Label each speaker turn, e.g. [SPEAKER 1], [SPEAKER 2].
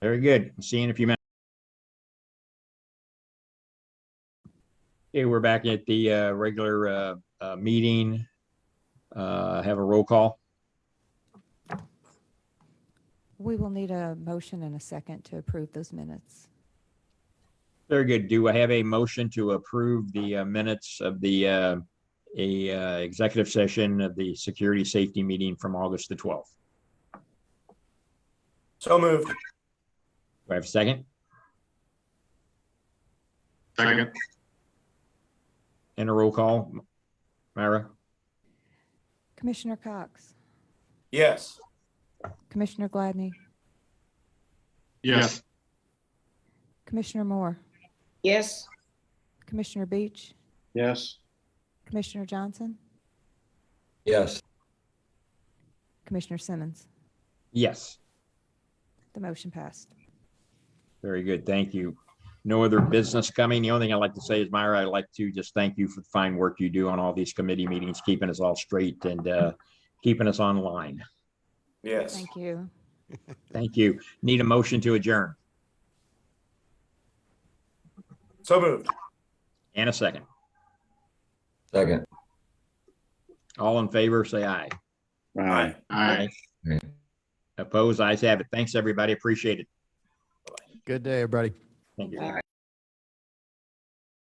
[SPEAKER 1] Very good. See you in a few minutes. Okay, we're back at the uh, regular uh, uh, meeting. Uh, Have a roll call.
[SPEAKER 2] We will need a motion and a second to approve those minutes.
[SPEAKER 1] Very good. Do I have a motion to approve the uh, minutes of the uh, a uh, executive session of the security safety meeting from August the 12th?
[SPEAKER 3] So moved.
[SPEAKER 1] Do I have a second?
[SPEAKER 4] Second,
[SPEAKER 1] And a roll call? Myra?
[SPEAKER 2] Commissioner Cox,
[SPEAKER 3] Yes.
[SPEAKER 2] Commissioner Gladney,
[SPEAKER 4] yes,
[SPEAKER 2] Commissioner Moore,
[SPEAKER 5] Yes.
[SPEAKER 2] Commissioner Beach,
[SPEAKER 6] Yes.
[SPEAKER 2] Commissioner Johnson,
[SPEAKER 7] yes,
[SPEAKER 2] Commissioner Simmons.
[SPEAKER 1] Yes.
[SPEAKER 2] The motion passed.
[SPEAKER 1] Very good. Thank you. No other business coming. The only thing I'd like to say is Myra, I'd like to just thank you for the fine work you do on all these committee meetings, keeping us all straight and uh, keeping us online.
[SPEAKER 3] Yes.
[SPEAKER 2] Thank you.
[SPEAKER 1] Thank you. Need a motion to adjourn
[SPEAKER 3] So moved.
[SPEAKER 1] and a second.
[SPEAKER 7] second,
[SPEAKER 1] All in favor, say aye.
[SPEAKER 3] Aye.
[SPEAKER 4] all right.
[SPEAKER 1] Opposed, ayes have it. Thanks, everybody. Appreciate it.
[SPEAKER 8] Good day, everybody.
[SPEAKER 1] Thank you.
[SPEAKER 5] All right.